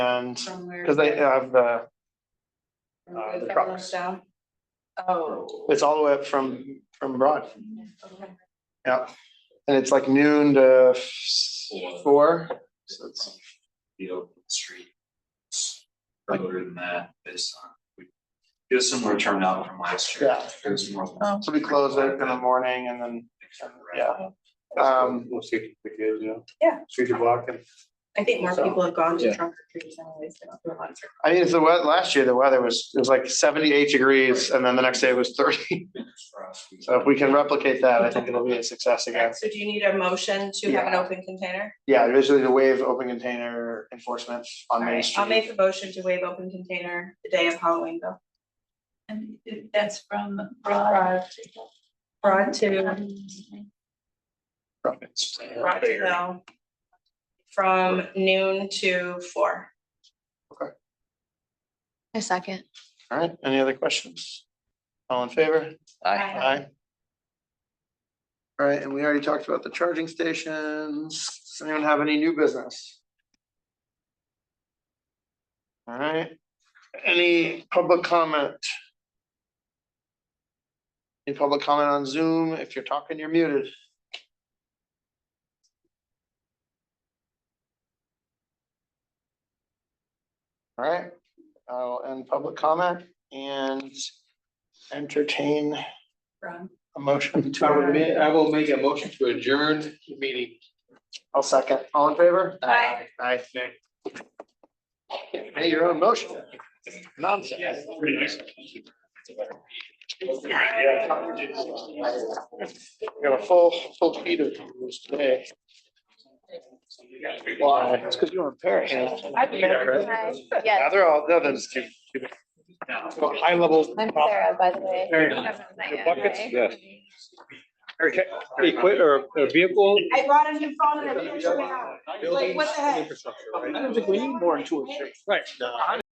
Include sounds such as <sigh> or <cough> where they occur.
And, From where? cause they have uh, the, from uh, where the that trucks. runs down? Oh. it's all the way up from, from Broad, Okay. yeah. And it's like noon to four, so it's, the open street. Further than that, based on, we, it was similar turnout from last year. Yeah. It was more. so we close it in the morning and then, yeah. Um, We'll see if we can, you know. Yeah. Shoot your block and. I think more So- people have gone to Yeah. trunk or treats anyways, they don't do a lot of trick I mean, it's the wet, last year, the weather was, it was like seventy-eight degrees and then the next day it was thirty. <laughs> So if we can replicate that, I think it'll be a success or treat. again. So do you need a motion to have an Yeah. open container? Yeah, visually the wave open container enforcement on Main Alright, I'll make Street. a motion to waive open container the day of Halloween though. And it- that's from Broad. Broad broad to, broad to Hill. From noon to four. A second. All right, any other questions? All in favor? Aye. All right, and we already talked about the charging stations. Does anyone have any new business? All right, any public comment? Any public comment on Zoom? If you're talking, you're muted. All right, I'll end public comment and entertain From. a motion to. I would ma- I will make a motion to adjourn the meeting. I'll second. All in favor? Aye. Aye. Hey, your own motion. Nonsense. We Got a full, full feed of this today. Why? It's because you were in Paris. Now Yes, they're all, they're just too. High level. I'm Sarah, by the way. buckets? Yes. Equip or a vehicle? I brought a new phone and I didn't turn it on. Like, what the heck? I don't think we need more than two or three. Right.